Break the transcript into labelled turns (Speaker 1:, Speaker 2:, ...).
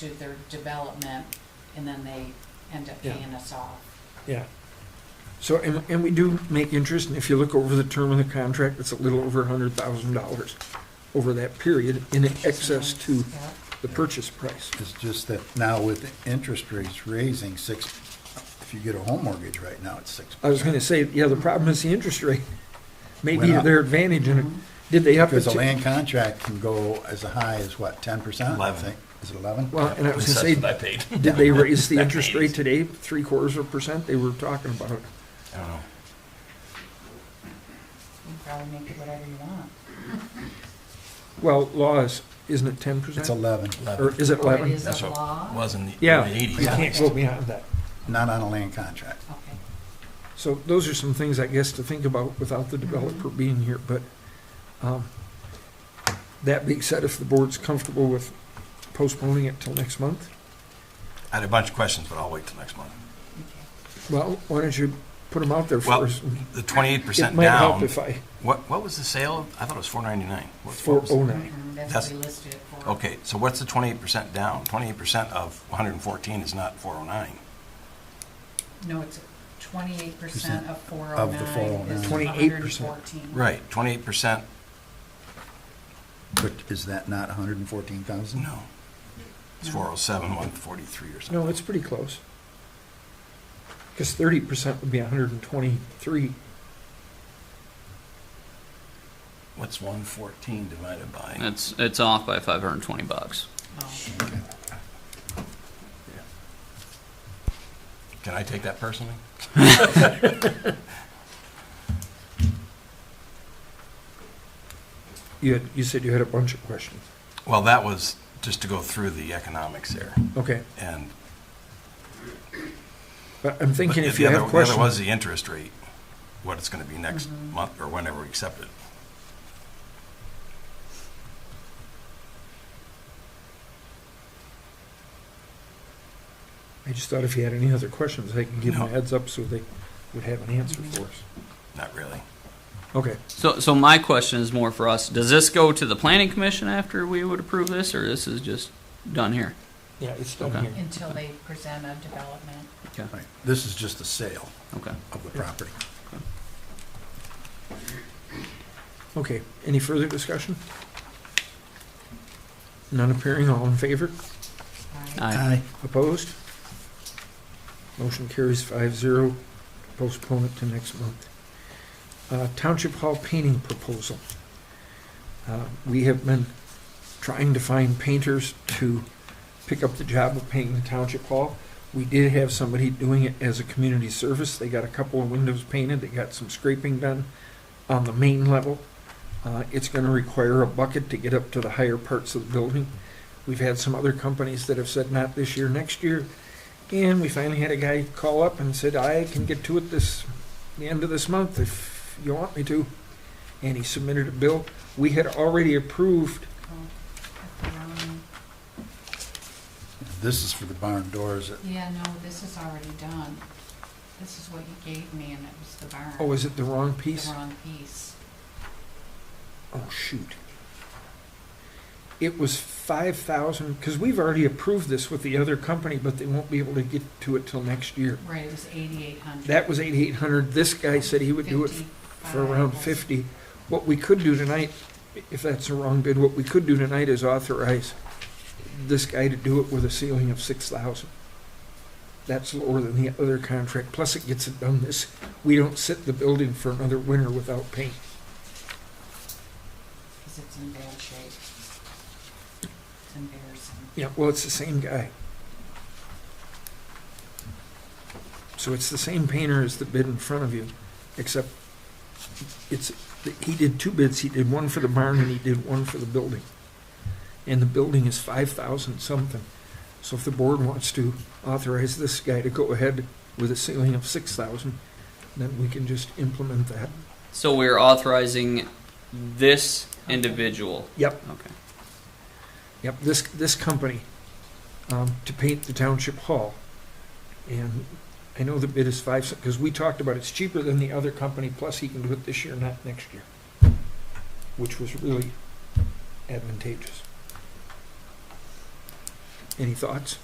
Speaker 1: to their development, and then they end up
Speaker 2: Yeah.
Speaker 1: paying us off.
Speaker 2: Yeah. So, and, and we do make interest, and if you look over the term of the contract, it's a little over a hundred thousand dollars over that period in excess to
Speaker 1: Yeah.
Speaker 2: the purchase price.
Speaker 3: It's just that now with interest rates raising six, if you get a home mortgage right now, it's six.
Speaker 2: I was gonna say, yeah, the problem is the interest rate. Maybe
Speaker 3: Went up.
Speaker 2: their advantage in it, did they up it
Speaker 3: Because a
Speaker 2: to?
Speaker 3: land contract can go as high as what, ten percent?
Speaker 4: Eleven.
Speaker 3: Is it eleven?
Speaker 2: Well, and I was
Speaker 4: That's
Speaker 2: gonna
Speaker 4: what I
Speaker 2: say,
Speaker 4: paid.
Speaker 2: did they raise the
Speaker 4: That
Speaker 2: interest
Speaker 4: pays.
Speaker 2: rate today, three quarters of a percent? They were talking about it.
Speaker 4: I don't know.
Speaker 1: You can probably make it whatever you want.
Speaker 2: Well, law is, isn't it ten
Speaker 3: It's
Speaker 2: percent?
Speaker 3: eleven,
Speaker 2: Or is it
Speaker 1: Or it
Speaker 2: eleven?
Speaker 1: is
Speaker 4: That's
Speaker 1: a
Speaker 4: what
Speaker 1: law?
Speaker 4: it was in the
Speaker 2: Yeah,
Speaker 4: early
Speaker 2: you
Speaker 4: eighties.
Speaker 2: can't go beyond that.
Speaker 3: not on a land contract.
Speaker 1: Okay.
Speaker 2: So those are some things, I guess, to think about without the developer being here, but, um, that being said, if the board's comfortable with postponing it till next month,
Speaker 4: I had a bunch of questions, but I'll wait till next month.
Speaker 1: okay.
Speaker 2: well, why don't you put them out there
Speaker 4: Well,
Speaker 2: first?
Speaker 4: the twenty-eight
Speaker 2: It
Speaker 4: percent
Speaker 2: might help
Speaker 4: down,
Speaker 2: if I,
Speaker 4: what, what was the sale? I thought it was four ninety-nine.
Speaker 2: four oh nine.
Speaker 1: Mhm, That's
Speaker 4: That's-
Speaker 1: what we listed it for.
Speaker 4: Okay, so what's the twenty-eight percent down? Twenty-eight percent of one hundred and fourteen is not four oh nine.
Speaker 1: No, it's twenty-eight percent of four oh
Speaker 3: Of the
Speaker 1: nine is
Speaker 2: 409.
Speaker 1: hundred and
Speaker 2: 28%.
Speaker 1: fourteen.
Speaker 4: Right, twenty-eight percent,
Speaker 3: But is that not a hundred and fourteen thousand?
Speaker 4: no. It's
Speaker 1: No.
Speaker 4: four oh seven, one forty-three or something.
Speaker 2: No, it's pretty close. Cause thirty percent would be hundred and twenty-three.
Speaker 4: What's one fourteen divided by?
Speaker 5: It's, it's off by 520 bucks.
Speaker 1: Oh,
Speaker 4: Can I take that personally?
Speaker 2: You had, you said you had a bunch of questions.
Speaker 4: Well, that was just to go through the economics there
Speaker 2: Okay,
Speaker 4: and.
Speaker 2: but I'm thinking
Speaker 4: but
Speaker 2: if
Speaker 4: the
Speaker 2: you
Speaker 4: other-
Speaker 2: have
Speaker 4: The other was
Speaker 2: questions,
Speaker 4: the interest rate, what it's gonna be next
Speaker 1: Mhm.
Speaker 4: month or whenever we accept it.
Speaker 2: I just thought if you had any other questions, I can give them a
Speaker 4: No. Mm-hmm.
Speaker 2: heads up so they would have an answer for us.
Speaker 4: Not really.
Speaker 2: Okay,
Speaker 5: So, so my question is more for us. Does this go to the planning commission after we would approve this, or this is just done here?
Speaker 2: yeah, it's done
Speaker 5: Okay.
Speaker 2: here.
Speaker 1: Until they present a development.
Speaker 5: Okay,
Speaker 3: Right, this is just a sale
Speaker 5: okay.
Speaker 3: of the property.
Speaker 2: Okay, any further discussion? None appearing, all in favor?
Speaker 4: Uh.
Speaker 1: right?
Speaker 5: Aye.
Speaker 3: Aye.
Speaker 2: Opposed? Motion carries five zero, postpone it to next month. Uh, Township Hall painting proposal. Uh, We have been trying to find painters to pick up the job of painting the Township Hall. We did have somebody doing it as a community service. They got a couple of windows painted, they got some scraping done on the main level. Uh, It's gonna require a bucket to get up to the higher parts of the building. We've had some other companies that have said not this year, next year. And we finally had a guy call up and said, I can get to it this, the end of this month if you want me to. And he submitted a bill. We had already approved,
Speaker 1: Oh, that's the wrong-
Speaker 3: This is for the barn doors.
Speaker 1: Yeah, no, this is already done. This is what you gave me, and it was the barn.
Speaker 2: oh, is it the wrong piece?
Speaker 1: The wrong piece.
Speaker 2: Oh, shoot. It was five thousand, because we've already approved this with the other company, but they won't be able to get to it till next year.
Speaker 1: Right, it was eighty-eight hundred.
Speaker 2: That was eighty-eight hundred. This guy said he would do it for around 50. What we could do tonight, if that's the wrong bid, what we could do tonight is authorize this guy to do it with a ceiling of 6,000. That's lower than the other contract, plus it gets it done this, we don't sit the building for another winter without paint.
Speaker 1: Because it's in bad shape. It's embarrassing.
Speaker 2: Yeah, well, it's the same guy. So it's the same painter as the bid in front of you, except it's, he did two bids, he did one for the barn and he did one for the building. And the building is five thousand something. So if the board wants to authorize this guy to go ahead with a ceiling of six thousand, then we can just implement that.
Speaker 5: So we're authorizing this individual?
Speaker 2: Yep.
Speaker 5: Okay.
Speaker 2: Yep, this, this company, um, to paint the township hall. And I know the bid is five, because we talked about it's cheaper than the other company, plus he can do it this year, not next year. Which was really advantageous. Any thoughts?